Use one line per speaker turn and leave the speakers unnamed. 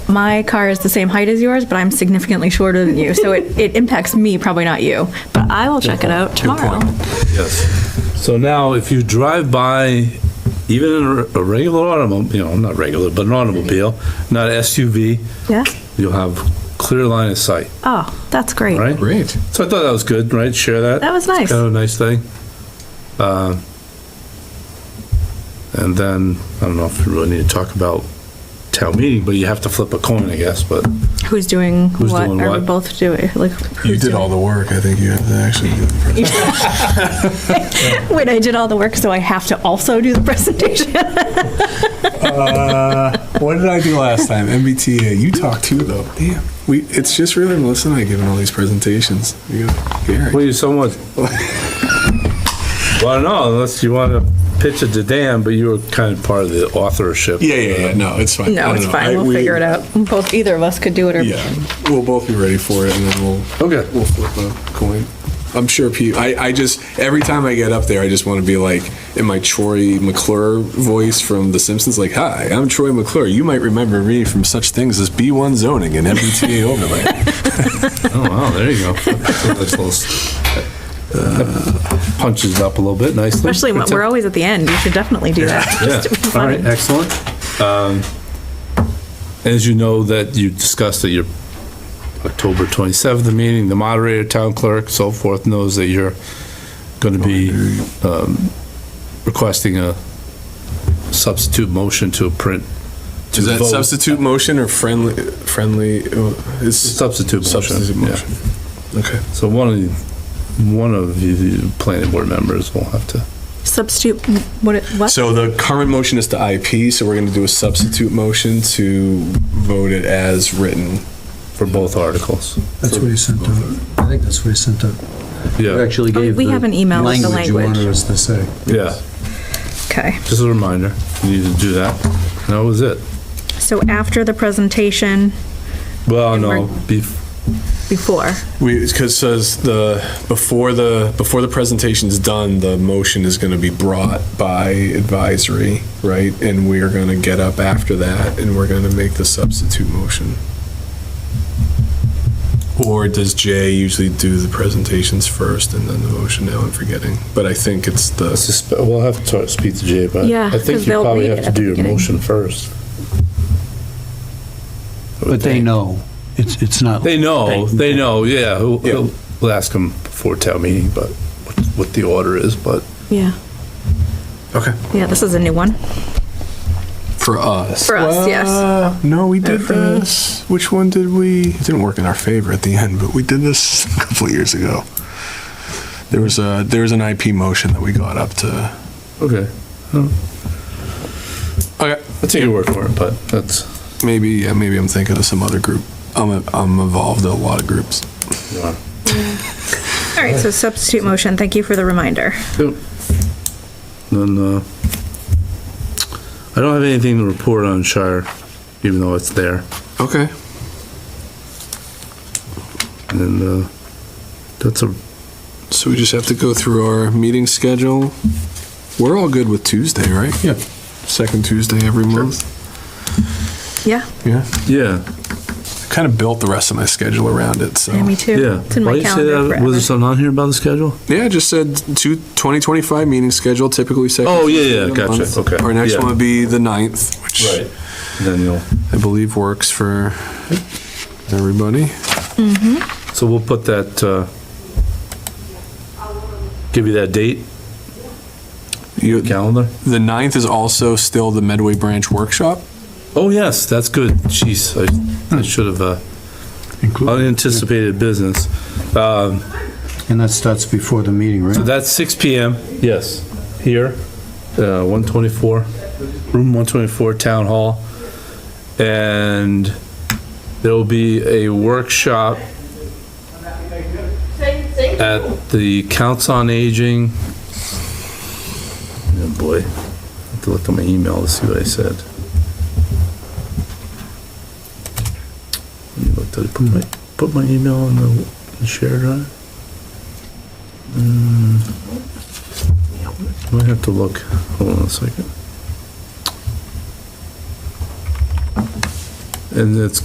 my car is the same height as yours, but I'm significantly shorter than you. So it, it impacts me, probably not you. But I will check it out tomorrow.
Yes.
So now, if you drive by, even in a- a regular automobile, you know, not regular, but an automobile, not SUV,
Yeah.
you'll have clear line of sight,
Oh, that's great.
right?
Great.
So I thought that was good, right? Share that.
That was
It's
nice.
Kind of a nice thing. Uh, And then, I don't know if we really need to talk about town meeting, but you have to flip a coin, I guess, but
Who's doing
Who's
what?
doing
Are
what?
we both doing? Like,
You
who's
did all the work. I think you have to actually do the presentation.
doing- Wait, I did all the work, so I have to also do the presentation.
Uh, What did I do last time? MBTA. You talked too, though. Damn. We. It's just really Melissa and I giving all these presentations. You got Gary.
Well, you somewhat. Well, no, unless you want to pitch it to Dan, but you were kind of part of the authorship.
Yeah, yeah, yeah. No, it's fine. I
no,
don't
it's
know.
fine.
I-
we'll
we-
figure it out. Both, either of us could do it. Or
Yeah, we'll both be ready for it, and then we'll
Okay.
We'll flip a coin. I'm sure people. I, I just every time I get up there, I just want to be like in my Troy McClure voice from The Simpsons, like, "Hi, I'm Troy McClure. You might remember me from such things as B1 zoning and MBTA overlay."
Oh, wow, there you go. That's a little- that Uh, Punches it up a little bit nicely.
Especially when we're always at the end. You should definitely do that.
Yeah,
just to be
all
funny.
right, excellent. Um, As you know, that you discussed at your October 27th meeting, the moderator, town clerk, so forth, knows that you're going to be um, requesting a substitute motion to print. to
Is that
vote.
substitute motion or friendly? Friendly uh, is
Substitute
substitute
motion, yeah.
motion. Okay.
So one of, you- one of you you planning board members will have to,
Substitute. What? it- What?
So the current motion is to IP, so we're going to do a substitute motion to vote it as written.
for both articles.
That's what he sent out. I think that's what he sent out.
Yeah,
actually
Oh, we
the
have an email with the
You
Language.
wanted us to say.
yeah,
Okay.
just a reminder, you need to do that. And that was it.
So after the presentation,
Well,
And
no,
we're-
bef-
before.
We, because says the, before the, before the presentation's done, the motion is gonna be brought by advisory, right? And we are gonna get up after that and we're gonna make the substitute motion. Or does Jay usually do the presentations first and then the motion? Now I'm forgetting, but I think it's the,
uh, Suspe- We'll have to talk- speak to Jay, but
Yeah,
I
'cause
think you
they'll
probably
read
have
it
to
at the
do your
beginning.
motion first.
But they know. It's, it's not.
They know, they know, yeah, who-
Yeah.
who- we'll ask him before town meeting, but what- what the order is, but
Yeah.
okay,
Yeah. This is a new one.
for us.
For us, yes.
Uh, No, we did
for me.
this, which one did we, it didn't work in our favor at the end, but we did this a couple of years ago. There was a, there was an IP motion that we got up to.
okay.
Okay.
I'll take your word for it, but that's,
Maybe, yeah, maybe I'm thinking of some other group. I'm, a- I'm involved in a lot of groups.
All right. So substitute motion. Thank you for the reminder.
Yep. Then, uh, I don't have anything to report on Shire, even though it's there.
Okay.
And, uh, that's a,
So we just have to go through our meeting schedule. We're all good with Tuesday, right? Yeah. Second Tuesday every month.
Yeah.
Yeah.
yeah,
Kind of built the rest of my schedule around it, so.
Yeah. Me too.
yeah.
It's in my
Why you say
calendar
that?
forever.
Was there something on here about the schedule?
Yeah, I just said two, 2025 meeting schedule, typically second.
Oh, yeah,
Tuesday
yeah,
of the
gotcha,
month.
okay,
Our next
yeah.
one would be the 9th, which
Then you'll.
I believe works for everybody.
So we'll put that, uh, give you that date,
You-
calendar?
The 9th is also still the Medway Branch Workshop.
Oh, yes, that's good. Jeez, I- I should have, uh,
Included.
unanticipated business. Um,
And that starts before the meeting,
So
right?
that's six PM, yes, here, uh, 124, room 124, Town Hall. And there will be a workshop at the Council on Aging. Oh, boy, I have to look at my email to see what I said. Let me look. Did I put my, put my email on the the shared drive? I might have to look. Hold on a second. And it's